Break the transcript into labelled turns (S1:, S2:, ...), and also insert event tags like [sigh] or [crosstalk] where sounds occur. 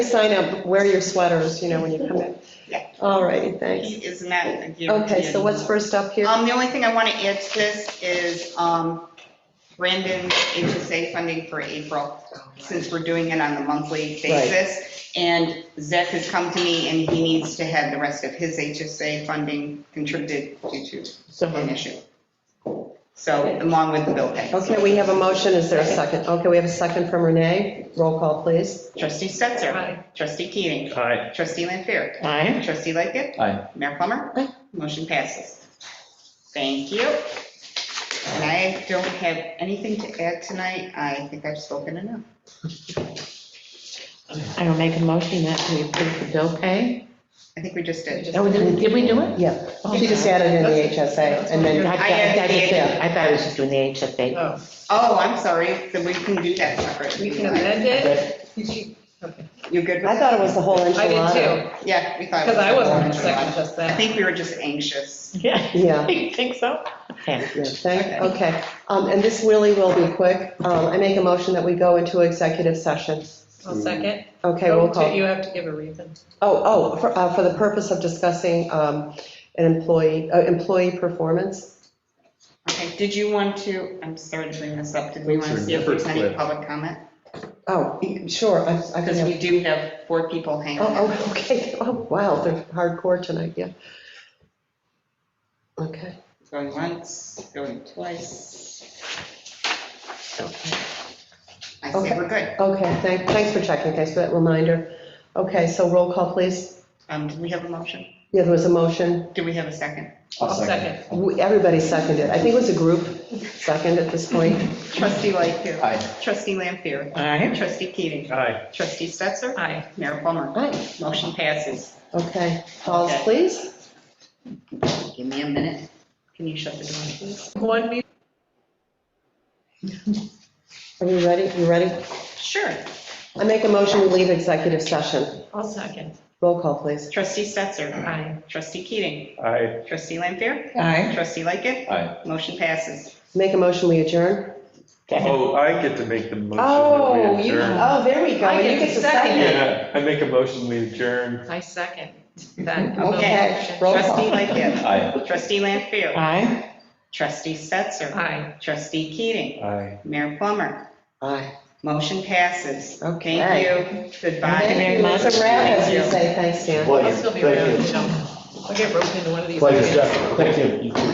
S1: sign up, wear your sweaters, you know, when you come in.
S2: Yeah.
S1: All righty, thanks.
S2: He is not a guarantee.
S1: Okay, so what's first up here?
S2: Um, the only thing I want to add to this is, um, Brandon's HSA funding for April, since we're doing it on a monthly basis. And Zach has come to me and he needs to have the rest of his HSA funding contributed due to
S3: So
S2: an issue. So along with the bill pay.
S1: Okay, we have a motion, is there a second? Okay, we have a second from Renee, roll call, please.
S2: Trustee Stetser. Trustee Keating.
S4: Aye.
S2: Trustee Lanfair.
S3: Aye.
S2: Trustee Lightgev.
S4: Aye.
S2: Mayor Plummer. Motion passes. Thank you. And I don't have anything to add tonight. I think I've spoken enough.
S3: I will make a motion that we approve the bill pay.
S2: I think we just did.
S3: Oh, did did we do it?
S1: Yeah,
S3: Oh,
S1: she just added in the HSA, and
S3: I
S1: then,
S3: thought- I thought it
S2: I
S3: said- I thought it was just doing the HSA.
S2: Oh, I'm sorry. So we can do that separately.
S5: We can amend it.
S2: You good with
S1: I
S2: that?
S1: thought it was the whole
S5: I
S1: enchilada.
S5: did too,
S2: Yeah, we thought. it
S5: because I wasn't
S2: a
S5: gonna second
S2: lot.
S5: just
S2: I
S5: that.
S2: think we were just anxious.
S3: [laughs] Yeah,
S1: Yeah.
S3: [laughs] you think so? Okay.
S1: Yeah, thank, okay, um, and this really will be quick. Um, I make a motion that we go into executive session.
S5: I'll second.
S1: Okay, roll
S5: Oh,
S1: call.
S5: You have to give a reason.
S1: Oh, oh, for, uh, for the purpose of discussing, um, an employee, uh, employee performance.
S2: Okay, did you want to, I'm sorry to bring this up. Did we want to
S4: Those are
S2: see if there's any
S4: different.
S2: public comment?
S1: Oh, e- sure, I, I can
S2: Because
S1: have,
S2: we do have four people hanging.
S1: oh, oh, [laughs] okay, oh, wow, they're hardcore tonight, yeah. Okay,
S2: Going once, going twice. I say we're good.
S1: okay, thank, thanks for checking, thanks for that reminder. Okay, so roll call, please.
S2: Um, do we have a motion?
S1: Yeah, there was a motion,
S2: Do we have a second?
S5: I'll second.
S1: We- everybody seconded, I think it was a group second at this point.
S2: Trustee Lightfoot.
S4: Aye.
S2: Trustee Lampier.
S3: Aye.
S2: Trustee Keating.
S4: Aye.
S2: Trustee Stetser.
S5: Aye.
S2: Mayor Plummer.
S1: Aye.
S2: Motion passes.
S1: Okay, calls,
S2: Okay.
S1: please.
S2: Give me a minute. Can you shut the door, please?
S5: One meeting.
S1: Are you ready? You ready?
S2: Sure.
S1: I make a motion, we leave executive session.
S5: I'll second.
S1: Roll call, please.
S2: Trustee Stetser.
S5: Aye.
S2: Trustee Keating.
S4: Aye.
S2: Trustee Lampier.
S3: Aye.
S2: Trustee Lightfoot.
S4: Aye.
S2: Motion passes.
S1: Make a motion, we adjourn.
S4: Oh, I get to make the motion. that we
S5: Oh,
S4: adjourn.
S1: Oh, there we
S5: I get to second it.
S4: Yeah, I make a motion, we adjourn.
S5: I second that.
S1: Okay, roll
S2: Trustee
S1: call.
S2: Lightfoot.
S4: Aye.
S2: Trustee Lampier.
S3: Aye.
S2: Trustee Stetser.
S5: Aye.
S2: Trustee Keating.
S4: Aye.
S2: Mayor Plummer.
S1: Aye.
S2: Motion passes.
S1: Okay.
S2: Thank you.
S3: Thank
S2: Goodbye.
S3: you. very much.
S1: It's a wrap, as we
S2: Thank you.
S1: say. Thanks, Dan.
S6: Pleasure,
S5: I'll still be around,
S6: thank
S5: you know. I'll get roped into one of
S6: you.
S5: these.
S6: Pleasure,
S5: meetings.
S6: Jeff, thank you. You too.